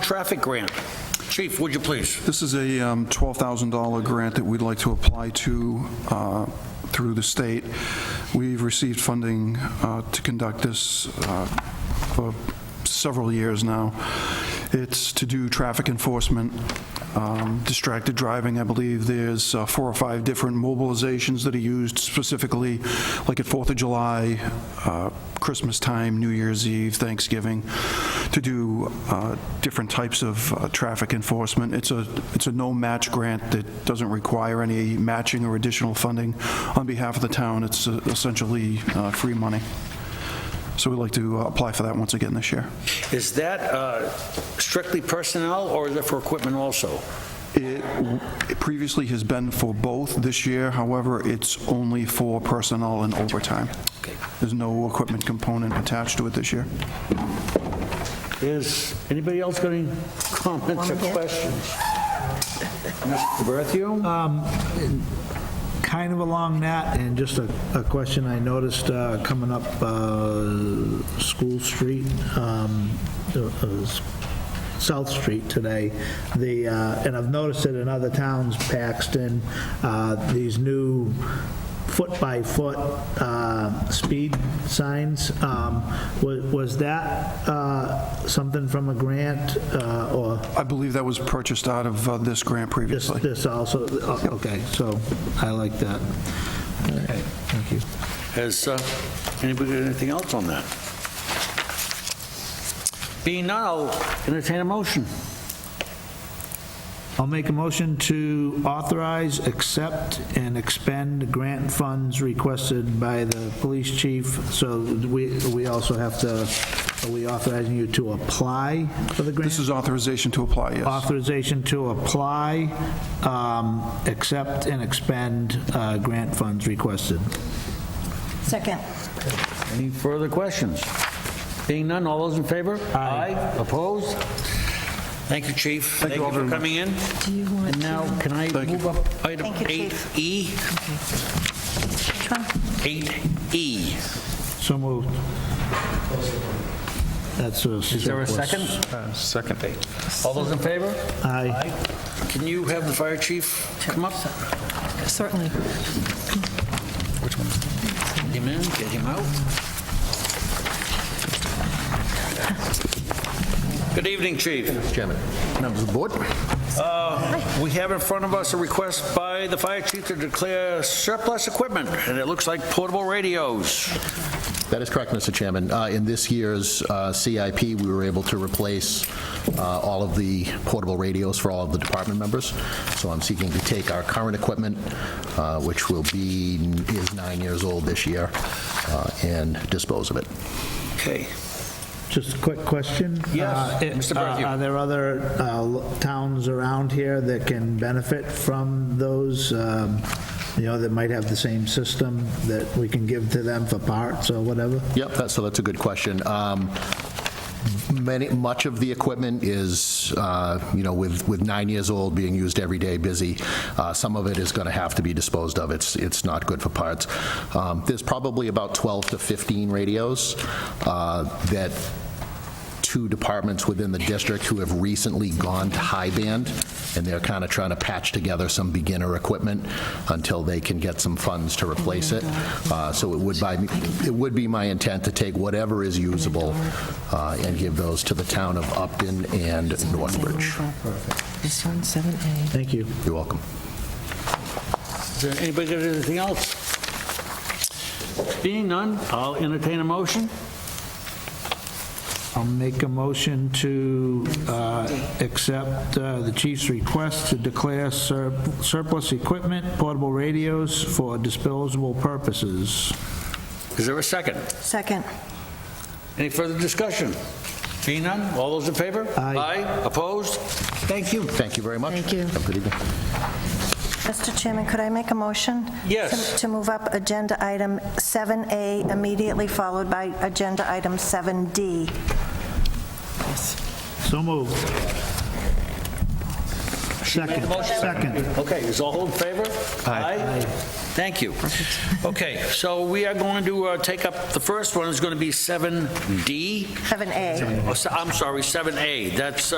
traffic grant. Chief, would you please? This is a um, $12,000 grant that we'd like to apply to uh, through the state. We've received funding uh, to conduct this uh, for several years now. It's to do traffic enforcement, um, distracted driving, I believe. There's uh, four or five different mobilizations that are used specifically, like at Fourth of July, uh, Christmas time, New Year's Eve, Thanksgiving, to do uh, different types of uh, traffic enforcement. It's a, it's a no-match grant that doesn't require any matching or additional funding on behalf of the town. It's uh, essentially uh, free money. So we'd like to uh, apply for that once again this year. Is that uh, strictly personnel or is it for equipment also? It w- it previously has been for both this year, however, it's only for personnel and overtime. There's no equipment component attached to it this year. Is anybody else got any comments or questions? Mr. Berthew? Kind of along that, and just a, a question I noticed uh, coming up uh, School Street, um, uh, uh, S- South Street today, the, uh, and I've noticed it in other towns, Paxton, uh, these new foot-by-foot uh, speed signs, um, wa- was that uh, something from a grant, uh, or I believe that was purchased out of uh, this grant this, previously. this also, oh, okay, so I like that. All right, Thank you. Has uh, anybody got anything else on that? Being none, I'll entertain a motion. I'll make a motion to authorize, accept, and expend grant funds requested by the police chief. So we, we also have to, are we authorizing you to apply for the grant? This is authorization to apply, yes. Authorization to apply, um, accept, and expend uh, grant funds requested. Second. Any further questions? Being none, all those in favor? Aye. Opposed? Thank you, Chief. Thank you all very for much. coming in. Do you want And now, can I Thank you. move up item E? Thank you, 8E? Chief. Which one? 8E. So moved. That's a Is there a surplus. second? Second. All those in favor? Aye. Can you have the fire chief come up? Certainly. Get him in, get him out. Good evening, chief. Uh, Chairman, members of the board, We have in front of us a request by the fire chief to declare surplus equipment, and it looks like portable radios. that is correct, Mr. Chairman. Uh, In this year's uh, CIP, we were able to replace uh, all of the portable radios for all of the department members. So I'm seeking to take our current equipment, uh, which will be, is nine years old this year, uh, and dispose of it. Okay. Just a quick question. Yes, Uh, it- Mr. Berthew. uh, Are there other uh, lo- towns around here that can benefit from those, um, you know, that might have the same system that we can give to them for parts or whatever? Yep, that's, so that's a good question. Um, Many, much of the equipment is, uh, you know, with, with nine years old, being used every day, busy, uh, some of it is going to have to be disposed of. It's, it's not good for parts. Um, There's probably about 12 to 15 radios uh, that two departments within the district who have recently gone to high band, and they're kind of trying to patch together some beginner equipment until they can get some funds to replace it. Uh, So it would by, it would be my intent to take whatever is usable uh, and give those to the town of Upton and Northbridge. This one, 7A. Thank you. You're welcome. Is there anybody got anything else? Being none, I'll entertain a motion. I'll make a motion to uh, accept uh, the chief's request to declare sur- surplus equipment, portable radios for disposable purposes. Is there a second? Second. Any further discussion? Being none, all those in favor? Aye. opposed? Thank you. Thank you very much. Thank you. Have a good evening. Mr. Chairman, could I make a motion? Yes. To- To move up Agenda Item 7A immediately followed by Agenda Item 7D. So moved. Second, second. Okay, is all in favor? Aye. Thank you. Okay, so we are going to uh, take up, the first one is going to be 7D, 7A. Oh, so- I'm sorry, 7A. That's uh,